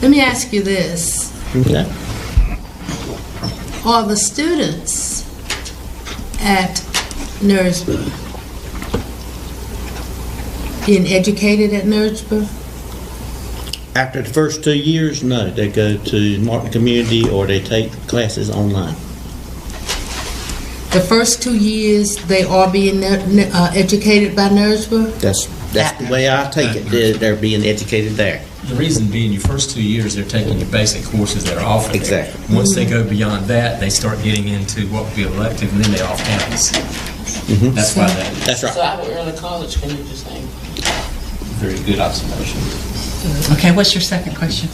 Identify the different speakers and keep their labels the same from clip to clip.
Speaker 1: Let me ask you this.
Speaker 2: Yeah.
Speaker 1: Are the students at Nursburg being educated at Nursburg?
Speaker 2: After the first two years, no, they go to Martin Community or they take classes online.
Speaker 1: The first two years, they are being nu- uh, educated by Nursburg?
Speaker 2: That's, that's the way I take it, that they're being educated there.
Speaker 3: The reason being, your first two years, they're taking your basic courses that are offered. there.
Speaker 2: Exactly.
Speaker 3: Once they go beyond that, they start getting into what would be elective, and then they off campus. That's why that,
Speaker 2: That's
Speaker 4: So
Speaker 2: right.
Speaker 4: I would early college can do the same.
Speaker 3: very good observation.
Speaker 5: Okay, what's your second question?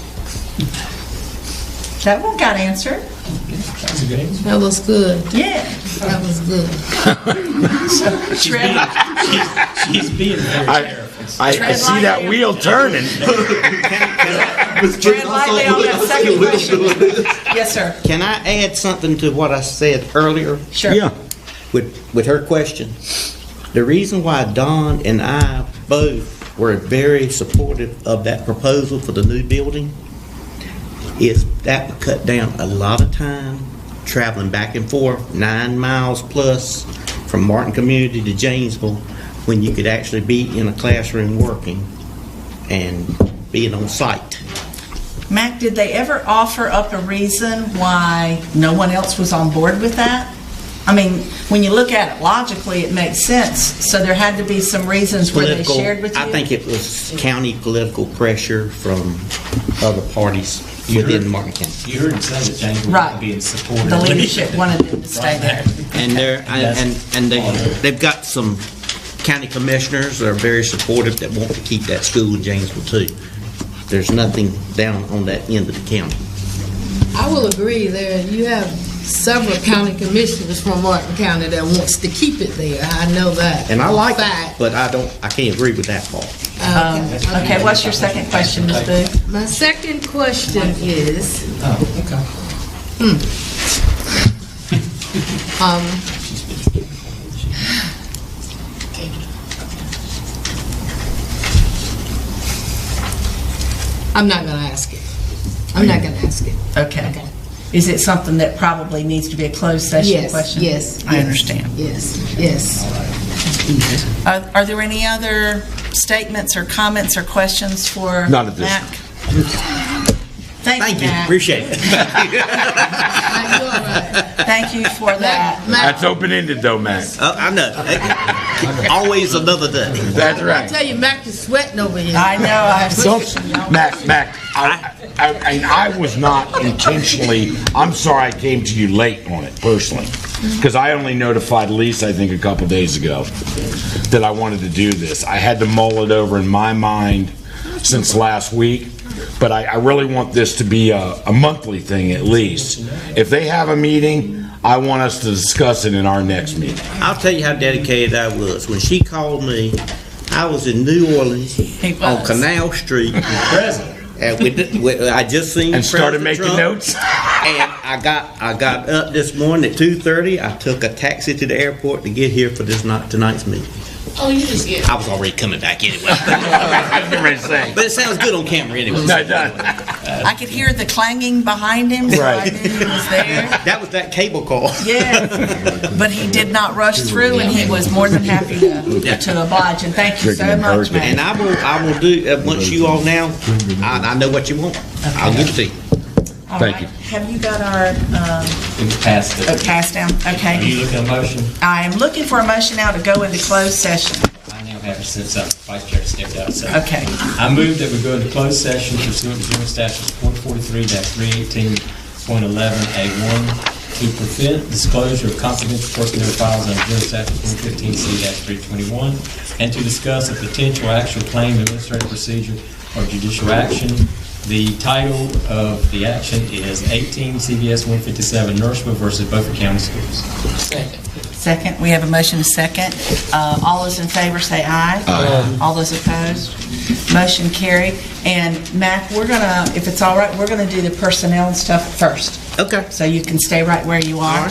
Speaker 5: That one got answered.
Speaker 3: That was a good answer.
Speaker 1: That was good.
Speaker 5: Yeah.
Speaker 1: That was good.
Speaker 5: Tread,
Speaker 3: He's being very
Speaker 6: I,
Speaker 3: careful.
Speaker 6: I, I see that wheel turning.
Speaker 5: tread lightly on that second question. Yes, sir.
Speaker 2: Can I add something to what I said earlier?
Speaker 5: Sure.
Speaker 2: with, with her question. The reason why Don and I both were very supportive of that proposal for the new building is that would cut down a lot of time traveling back and forth, nine miles plus from Martin Community to Janesville, when you could actually be in a classroom working and being on site.
Speaker 5: Mac, did they ever offer up a reason why no one else was on board with that? I mean, when you look at it logically, it makes sense. So there had to be some reasons where they
Speaker 2: Political-
Speaker 5: shared with you?
Speaker 2: I think it was county political pressure from other parties within Martin County.
Speaker 3: You heard him say that James
Speaker 5: Right.
Speaker 3: was being supportive.
Speaker 5: The leadership wanted them to stay there.
Speaker 2: And they're, and, and- and they, they've got some county commissioners that are very supportive that want to keep that school in Janesville too. There's nothing down on that end of the county.
Speaker 1: I will agree there. You have several county commissioners from Martin County that wants to keep it there. I know that.
Speaker 2: And I like
Speaker 1: Fact.
Speaker 2: that, but I don't, I can't agree with that part.
Speaker 5: Okay, what's your second question, Ms. Booth?
Speaker 1: My second question is, hmm.
Speaker 3: Oh, okay.
Speaker 1: um, I'm not gonna ask it. I'm not gonna ask it.
Speaker 5: Okay. Is it something that probably needs to be a closed session
Speaker 1: Yes,
Speaker 5: question?
Speaker 1: yes,
Speaker 5: I
Speaker 1: yes.
Speaker 5: understand.
Speaker 1: Yes, yes.
Speaker 5: Are are there any other statements or comments or questions for
Speaker 6: None at this
Speaker 5: Mac? Thank
Speaker 2: Thank
Speaker 5: you,
Speaker 2: you,
Speaker 5: Mac.
Speaker 2: appreciate it.
Speaker 1: Now, you're right.
Speaker 5: Thank you for that.
Speaker 1: Mac,
Speaker 6: That's open-ended though, Mac.
Speaker 2: Oh, I know. Always another day.
Speaker 6: That's
Speaker 1: I
Speaker 6: right.
Speaker 1: tell you, Mac is sweating over here.
Speaker 5: I know, I
Speaker 6: Don't,
Speaker 5: was,
Speaker 6: Mac, Mac, I, I, and I was not intentionally, I'm sorry I came to you late on it personally. Because I only notified Lisa, I think, a couple days ago that I wanted to do this. I had to mull it over in my mind since last week. But I, I really want this to be a, a monthly thing at least. If they have a meeting, I want us to discuss it in our next meeting.
Speaker 2: I'll tell you how dedicated I was. When she called me, I was in New Orleans on
Speaker 5: was.
Speaker 2: Canal Street. And we, did- we- I just seen.
Speaker 6: And started
Speaker 2: President
Speaker 6: making
Speaker 2: Trump.
Speaker 6: notes?
Speaker 2: And I got, I got up this morning at two thirty. I took a taxi to the airport to get here for this night, tonight's meeting.
Speaker 4: Oh, you just get.
Speaker 2: I was already coming back anyway.
Speaker 6: I was getting ready to say.
Speaker 2: But it sounds good on camera anyway.
Speaker 6: No, no.
Speaker 5: I could hear the clanging behind him, so I
Speaker 6: Right.
Speaker 5: knew he was there.
Speaker 2: That was that cable call.
Speaker 5: Yes, but he did not rush through, and he was more than happy to to oblige, and thank you so
Speaker 6: Drinking
Speaker 5: much,
Speaker 6: bourbon.
Speaker 2: And
Speaker 5: Mac.
Speaker 2: I will, I will do, uh, once you all now, I, I know what you want. I'll give it to you.
Speaker 5: All
Speaker 6: Thank
Speaker 5: right.
Speaker 6: you.
Speaker 5: Have you got our um,
Speaker 3: It was past
Speaker 5: oh,
Speaker 3: it.
Speaker 5: pass down?
Speaker 3: Are you
Speaker 5: Okay.
Speaker 3: looking at a motion?
Speaker 5: I am looking for a motion now to go into closed session.
Speaker 3: I now have to sit up. Vice Chair stepped out. so-
Speaker 5: Okay.
Speaker 3: I move that we go into closed session pursuant to General Statutes 143-318.11A1 to prevent disclosure of confidential personnel files under General Statute 115C-321 and to discuss a potential actual claim, administrative procedure, or judicial action. The title of the action is 18 CVS 157 Nourishment versus Beaufort County Schools.
Speaker 5: Second, we have a motion to second. Uh, All those in favor say aye. All those opposed, motion carried. And Mac, we're gonna, if it's all right, we're gonna do the personnel and stuff first.
Speaker 2: Okay.
Speaker 5: So you can stay right where you are.